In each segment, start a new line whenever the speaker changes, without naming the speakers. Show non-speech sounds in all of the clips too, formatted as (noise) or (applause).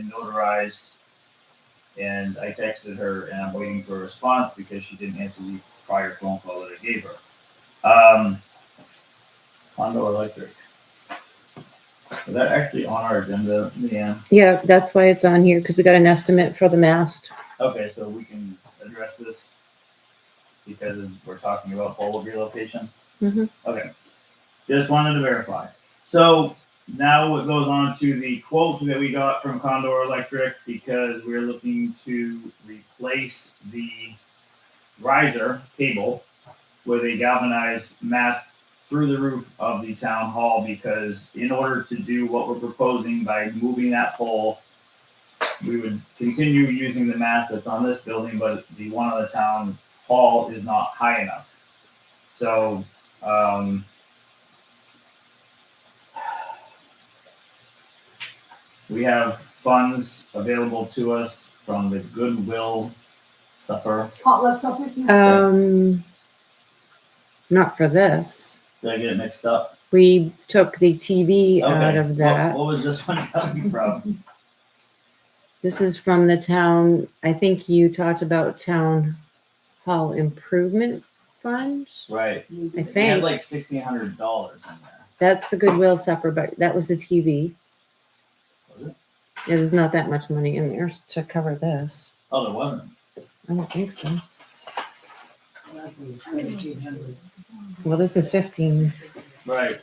and notarized. And I texted her and I'm waiting for a response because she didn't answer the prior phone call that I gave her. Um, Hondo Electric. Is that actually on our agenda, Leanne?
Yeah, that's why it's on here, because we got an estimate for the mast.
Okay, so we can address this because we're talking about pole relocation?
Mhm.
Okay, just wanted to verify. So now it goes on to the quote that we got from Condor Electric because we're looking to replace the riser cable with a galvanized mast through the roof of the town hall because in order to do what we're proposing by moving that pole we would continue using the mast that's on this building, but the one on the town hall is not high enough. So, um, we have funds available to us from the Goodwill Supper.
Hot love suppers, you know,
Um, not for this.
Did I get it mixed up?
We took the TV out
Okay,
of
What,
that.
what was this one coming from? (laughs)
This is from the town, I think you talked about town hall improvement fund.
Right.
I
We had
think
like sixteen hundred dollars in there.
that's the Goodwill supper, but that was the TV.
Was it?
There's not that much money in there to cover this.
Oh, there wasn't.
I don't think so.
seventeen hundred.
Well, this is fifteen.
Right.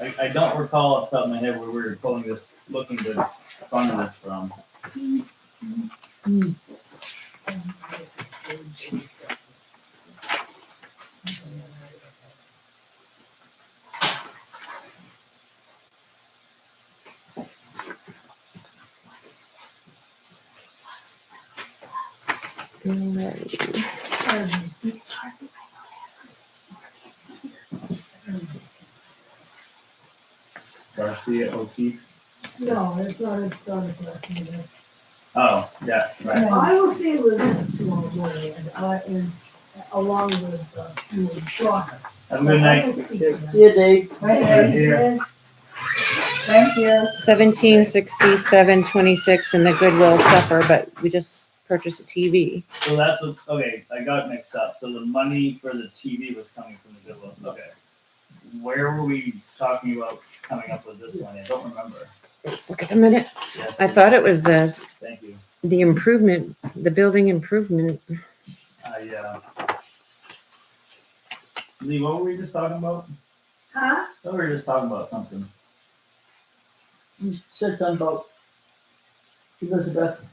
I, I don't recall off the top of my head where we were pulling this, looking to fund this from.
Alright.
Garcia O'Keefe.
No, it's not, it's not as last name, it's.
Oh, yeah, right.
I will say Elizabeth to all the and I, and along with, uh, you know, Schlager.
Have a good night.
You do.
Thank you.
Thank you.
Seventeen sixty-seven twenty-six in the Goodwill supper, but we just purchased a TV.
So that's what, okay, I got mixed up. So the money for the TV was coming from the Goodwill. Okay. Where were we talking about coming up with this one? I don't remember.
Let's look at the minutes.
Yes,
I
please.
thought it was the,
Thank you.
the improvement, the building improvement.
I, uh, Lee, what were we just talking about?
Huh?
I thought we were just talking about something.
Said something about Elizabeth.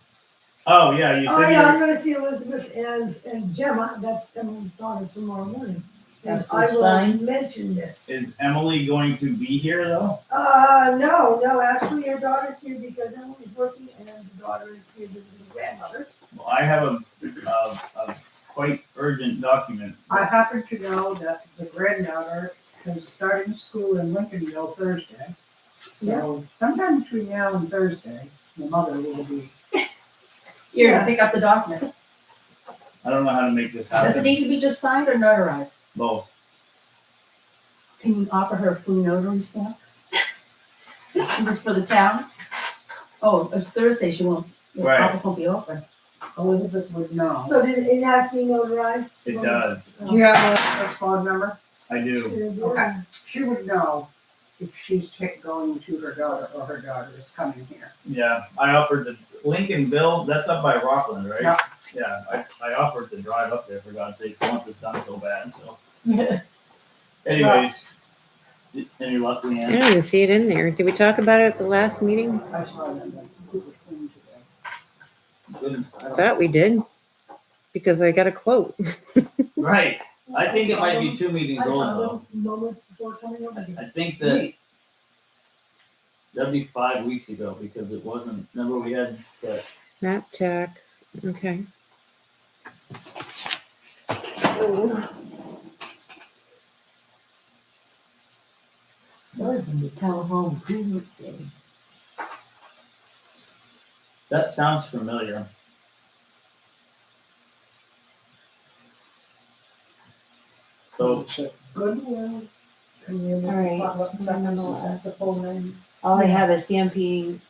Oh, yeah, you
Oh,
said you
yeah,
were-
I'm gonna see Elizabeth and, and Gemma, that's Emily's daughter tomorrow morning. And
After
I will
sign?
mention this.
Is Emily going to be here though?
Uh, no, no, actually, your daughter's here because Emily's working and the daughter is here visiting the grandmother.
Well, I have a, a, a quite urgent document.
I happen to know that the granddaughter is starting school in Lincolnville Thursday. So sometime between now and Thursday, the mother will be.
You're
Yeah.
gonna pick up the document.
I don't know how to make this
Does it
happen.
need to be just signed or notarized?
Both.
Can you offer her a free notary stamp? This is for the town? Oh, it's Thursday, she won't, the
Right.
office won't be open.
Elizabeth would know.
So did it has to be notarized?
Uh-huh. It does.
Oh.
Do you have Elizabeth's phone number?
I do.
Okay.
She would know if she's ta- going to her daughter or her daughter is coming here.
Yeah, I offered the Lincolnville. That's up by Rockland, right?
Yeah.
Yeah, I, I offered to drive up there for God's sakes. I want this done so bad. So, anyways, any luck,
I
Leanne?
don't even see it in there. Did we talk about it at the last meeting?
I saw them, like, who was coming today.
Good.
I Thought we did, because I got a quote.
Right. I think it might be two meetings
I
old
saw
though.
them moments before coming over here.
I think that that'd be five weeks ago because it wasn't. Remember we had that
Map tech, okay.
That sounds familiar. So,
Goodwill. Community.
All right.
Potluck Suppers, is that the full name?
All I have is CMP